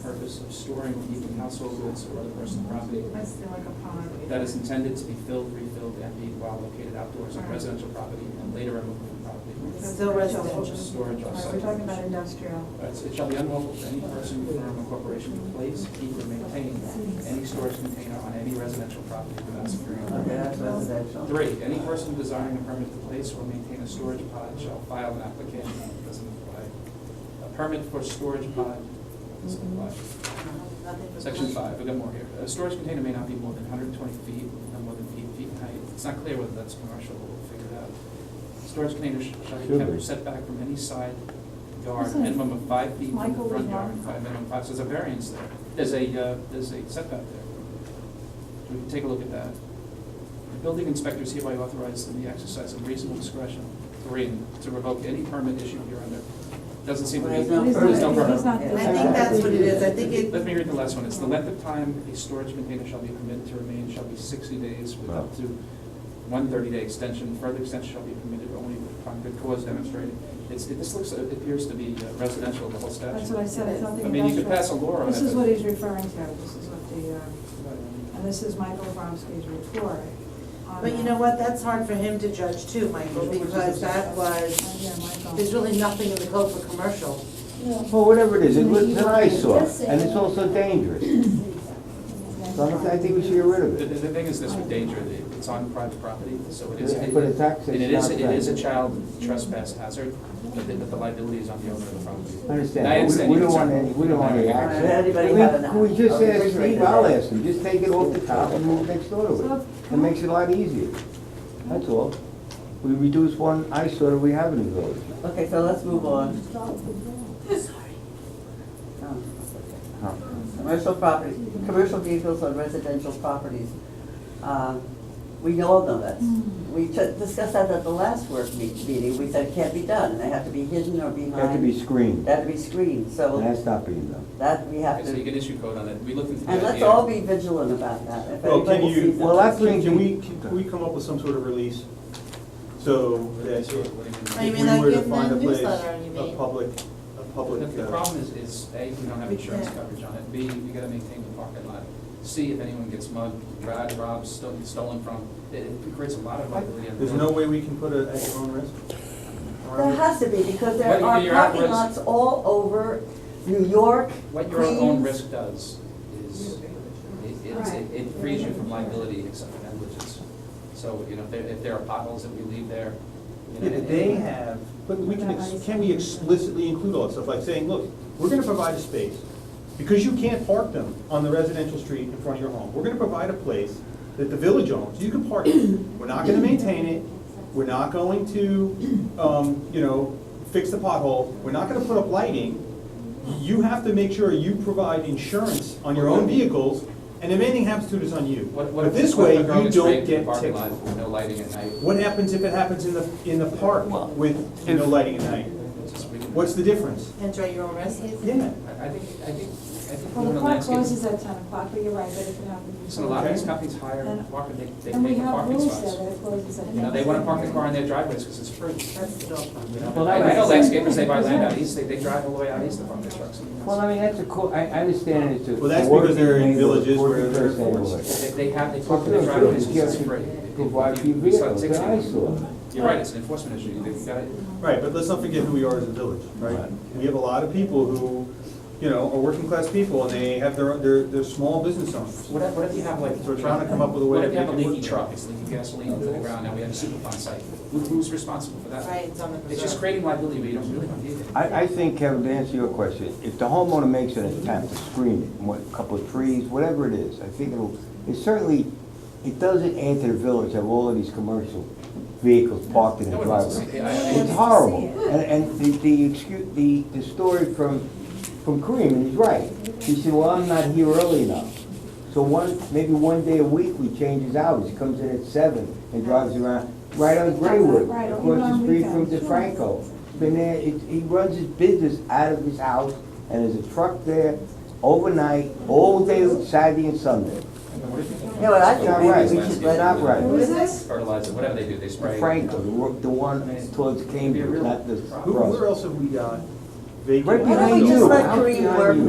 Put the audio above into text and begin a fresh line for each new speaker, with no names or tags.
purpose of storing even household goods or other personal property
I see like a pond.
that is intended to be filled, refilled, emptied while located outdoors on residential property and later removed from property.
That's
Still residential.
residential.
Storage
All
or
right, we're talking about industrial.
Uh, it's- It shall be unlawful for any person, firm, or corporation to place, keep, or maintain any storage container on any residential property without security.
Okay, that's residential.
Three, any person desiring a permit to place or maintain a storage pod shall file an application, doesn't apply. A permit for storage pod doesn't apply. Section five, we got more here. A storage container may not be more than hundred and twenty feet, no more than eight feet in height. It's not clear whether that's commercial, we'll figure it out. Storage containers sh- shall be
Should
kept
be.
set back from any side yard,
Isn't it
minimum of five feet from
Michael
the front
was
yard,
wrong?
five, minimum five, so there's a variance there. There's a, uh, there's a setback there. We can take a look at that. The building inspector is hereby authorized in the exercise of reasonable discretion, three, to revoke any permit issued hereunder. Doesn't seem to be.
There's no
He's
permit.
not-
permit.
he's not
I
doing
think
that.
that's what it is, I think it.
Let me read the last one. It's the length of time a storage container shall be permitted to remain shall be sixty days with up to one thirty-day extension. Further extension shall be permitted only upon good cause demonstrated. It's, it- this looks, it appears to be uh, residential, the whole statute.
That's what I said, I don't think
I mean, you could pass a
industrial.
law on it.
This is
but-
what he's referring to, this is what the, uh, and this is Michael Bromsky's report. on
But you
that.
know what, that's hard for him to judge too, Michael, because that
Uh,
was,
Yeah, Michael.
there's really nothing in the code for commercial.
Well, whatever it is, it was an eyesore, and it's also dangerous. So I I think we should get rid of
The, the
it.
the thing is this with danger, the- it's on private property, so it is.
Yeah, but it's access,
And it is,
not
it is a
private.
child trespass hazard, but the, but the liability is on the owner of the property.
I
And I
Understand, but
understand
we we
your
don't want
concern.
any, we don't want any action.
Everybody
We-
have enough.
We just
Okay,
asked
just
Steve,
right
I'll
there.
ask him, just take it off the top and move next door to it. It makes it a lot easier. That's all. We reduce one eyesore that we have in the village.
Okay, so let's move on. Um,
Huh.
Commercial properties, commercial vehicles on residential properties. Um, We all know that. We t- discussed that at the last work me- meeting, we said it can't be done, they have to be hidden or
It
behind.
Had to be screened,
They have to be screened,
and
so
that's not being done.
that we have
Okay, So you
to,
can issue code on it. We looked into the
and
idea.
let's all be vigilant about that. If
Well, can
anybody
you-
sees that-
Well, that's-
Can can we, can we come up with some sort of release? So that
Sort of what do you mean?
Oh, you
if
mean
we
like
were to
in the
find a place,
newsletter, you
a
mean?
public, a public.
The- The
uh,
problem is, is A, we don't have
We
insurance
can't.
coverage on it, B, we gotta maintain the parking lot, C, if anyone gets mugged, robbed, robbed, stolen, stolen from, it it creates a lot of liability. on the
There's no way we can put it at your own risk?
There has to be,
What
because there
you-
are
you're at
parking
risk.
lots all over New York,
What your own
Queens.
risk does is, it- it's- it it frees you from liability except for negligence. So, you know, if there, if there are potholes that we leave there, you know.
Yeah, but
and-
they have, but we can, ex- can we explicitly include all that stuff, like saying, look, we're gonna provide a space, because you can't park them on the residential street in front of your home, we're gonna provide a place that the village owns, you can park it, we're not gonna maintain it, we're not going to, um, you know, fix the pothole, we're not gonna put up lighting, you have to make sure you provide insurance on your own vehicles, and if anything happens to it, it's on you.
What, what
But
if,
this
what
way,
if a
you
girl
don't
gets raped in the
get
parking
ticked.
lot with no lighting at night?
What happens if it happens in the, in the park with no lighting at night?
Just we can-
What's the difference?
Enjoy your own residence.
Yeah.
I I think, I think, I think.
Well,
doing
the
a
clock
landscape-
closes at ten o'clock, but you're right, that it can happen.
So a lot of these
Okay.
companies hire
And-
parking, they, they
And we
pay for
have
parking
rules there
spots.
that it closes at ten.
You know, they wanna park their car in their driveways because it's free.
That's the dog park.
You know,
Well,
I
that
I know
was-
landscapers, they buy land out east, they, they drive all the way out east to park their trucks.
Well, I mean, that's a cool, I, I understand it's a.
Well, that's because they're in villages where
working
they're
person
forced.
neighborhood.
They, they have, they
It's a
park in their
village,
driveways
you
because it's
can't
free.
Provide
If
few
you- you start
vehicles, it's an
taxing them-
eyesore.
You're right, it's an enforcement issue, you've got it.
Right, but let's not forget who we are as a village, right? We have a lot of people who, you know, are working class people and they have their, they're, they're small business owners.
What if, what if you have like,
So we're trying to come up with a way
what if you
to
have a
make it
leaky
work.
truck, it's leaking gasoline into the ground, now we have a superfund site, Who- who's responsible for that?
Right, it's on the preserve.
It's just creating liability, but you don't really want to do it.
I, I think, Kevin, to answer your question, if the homeowner makes an attempt to screen it, what, a couple of trees, whatever it is, I think it'll, it certainly, it doesn't add to the village have all of these commercial vehicles parked in
No one
the
wants to
driveway.
see- I- I-
It's horrible, and, and the, the excuse, the, the story from, from Kareem, and he's right, he said, well, I'm not here early enough. So one, maybe one day a week, we change his hours, he comes in at seven and drives around, right on Graywood,
Right, or even
across
on
the street from
weekends, sure.
DeFranco. Been there, it- he runs his business out of his house, and there's a truck there overnight, all day Saturday and Sunday.
You know what, I think
Not
maybe
right.
we should let
Not right.
Who is this?
Fertilizer, whatever they do, they spray.
Franco, the one- the one towards Cambridge, not the
Who, where
cross.
else have we got vacant?
Right
Why
behind
don't we just
you.
let Kareem work